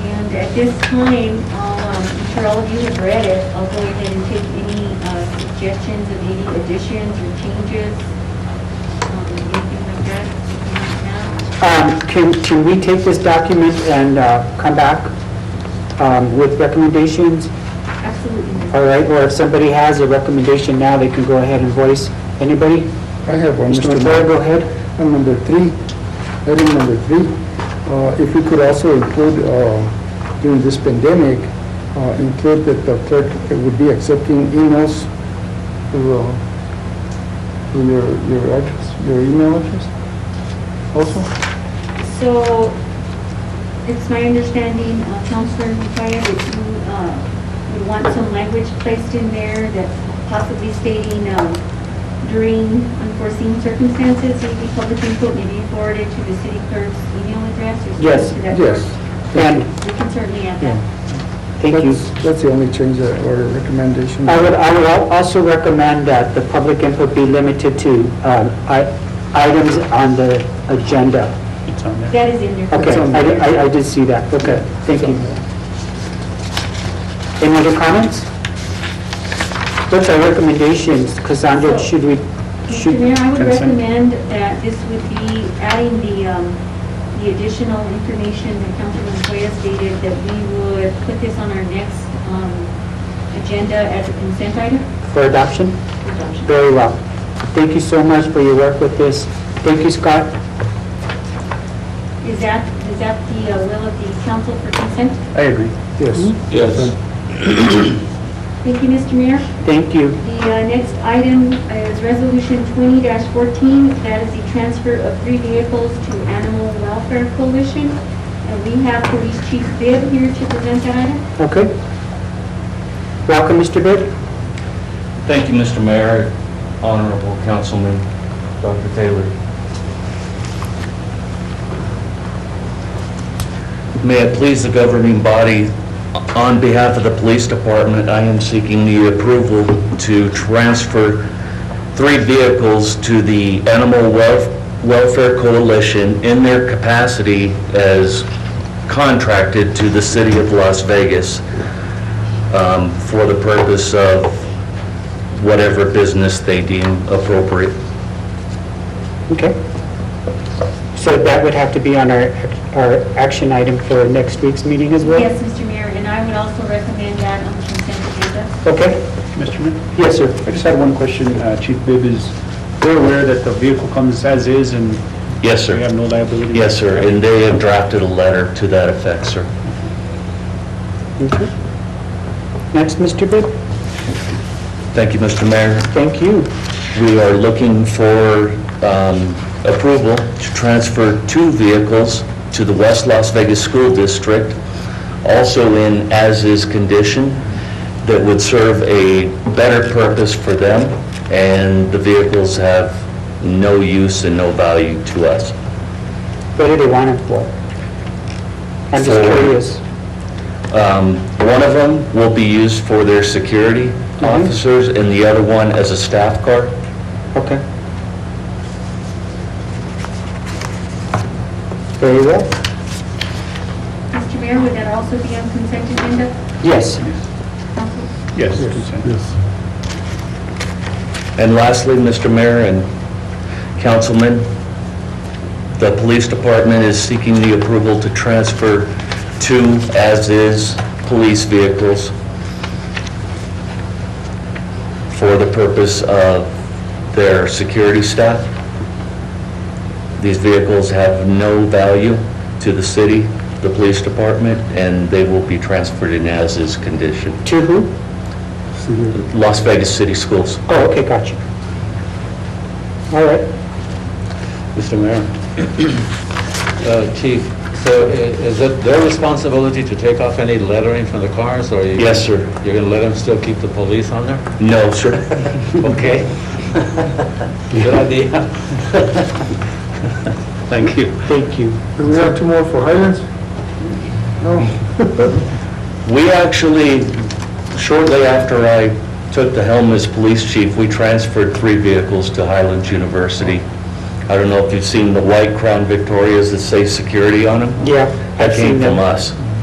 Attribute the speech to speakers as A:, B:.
A: And at this time, I'll, um, I'm sure all of you have read it, I'll go ahead and take any uh, suggestions of any additions or changes, um, anything like that. If not,
B: Um, Can, can we take this document and uh, come back um, with recommendations?
A: Absolutely. Ms.
B: All right, or if somebody has a recommendation now, they can go ahead and voice. Anybody?
C: I have one,
B: Mr.
C: Mr.
B: McClure,
C: Mayor.
B: go ahead.
C: On number three, item number three, uh, if we could also include, uh, during this pandemic, uh, include that the clerk would be accepting emails through uh, through your your address, your email address also?
A: So, it's my understanding, uh, Counselor Mufaya, that you, uh, would want some language placed in there that possibly stating, um, during unforeseen circumstances, maybe public input may be forwarded to the city clerk's email address or something
B: Yes,
A: to that.
C: Yes.
B: And,
A: effect. We can certainly add
C: Yeah.
A: that.
B: thank you.
C: That's- That's the only change that- or recommendation.
B: I would, I would al- also recommend that the public input be limited to um, i- items on the agenda.
A: That is in there.
B: Okay, I di- I, I did see that, okay, thank you. Any other comments? What's our recommendations, Cassandra, should we, should?
A: Mr. Mayor, I would
B: Consent.
A: recommend that this would be adding the, um, the additional information that Councilman Toya stated, that we would put this on our next, um, agenda as a consent item.
B: For adoption?
A: Adoption.
B: Very well. Thank you so much for your work with this. Thank you, Scott.
A: Is that, is that the uh, will of the council for consent?
B: I agree.
C: Yes.
B: Hmm?
D: Yes.
A: Thank you, Mr. Mayor.
B: Thank you.
A: The uh, next item is Resolution twenty fourteen. That is the transfer of three vehicles to Animal Welfare Coalition. And we have Police Chief Bibb here to present that item.
B: Okay. Welcome, Mr. Bird.
D: Thank you, Mr. Mayor, Honorable Councilman, Dr. Taylor. May it please the governing body, on behalf of the police department, I am seeking the approval to transfer three vehicles to the Animal Welf- Welfare Coalition in their capacity as contracted to the city of Las Vegas um, for the purpose of whatever business they deem appropriate.
B: Okay. So that would have to be on our, our action item for next week's meeting as well?
A: Yes, Mr. Mayor, and I would also recommend that on the consent agenda.
B: Okay.
E: Mr. Mayor,
B: Yes, sir.
E: I just had one question. Uh, Chief Bibb is, we're aware that the vehicle comes as is and
D: Yes,
E: we have
D: sir.
E: no liability.
D: Yes, sir, and they have drafted a letter to that effect, sir.
B: Okay. Next, Mr. Bird.
D: Thank you, Mr. Mayor.
B: Thank you.
D: We are looking for um, approval to transfer two vehicles to the West Las Vegas School District, also in as-is condition, that would serve a better purpose for them, and the vehicles have no use and no value to us.
B: What do they want it for? I'm just
D: For-
B: curious.
D: Um, One of them will be used for their security officers, and the other one as a staff car.
B: Okay. Very well.
A: Mr. Mayor, would that also be on consent agenda?
B: Yes.
A: Council?
E: Yes, consent.
D: And lastly, Mr. Mayor and councilmen, the police department is seeking the approval to transfer two as-is police vehicles for the purpose of their security staff. These vehicles have no value to the city, the police department, and they will be transferred in as-is condition.
B: To who?
D: Las Vegas City Schools.
B: Oh, okay, gotcha. All right.
F: Mr. Mayor. Uh, Chief, so i- is it their responsibility to take off any lettering from the cars, or? you-
D: Yes, sir.
F: You're going to let them still keep the police on there?
D: No, sir.
F: Okay. Good idea. Thank you.
B: Thank you.
C: Do we have two more for Highlands? No?
D: We actually, shortly after I took the helm as police chief, we transferred three vehicles to Highlands University. I don't know if you've seen the white Crown Victorias that say security on them?
B: Yeah. I've
D: That came
B: seen
D: from
B: them.
D: us.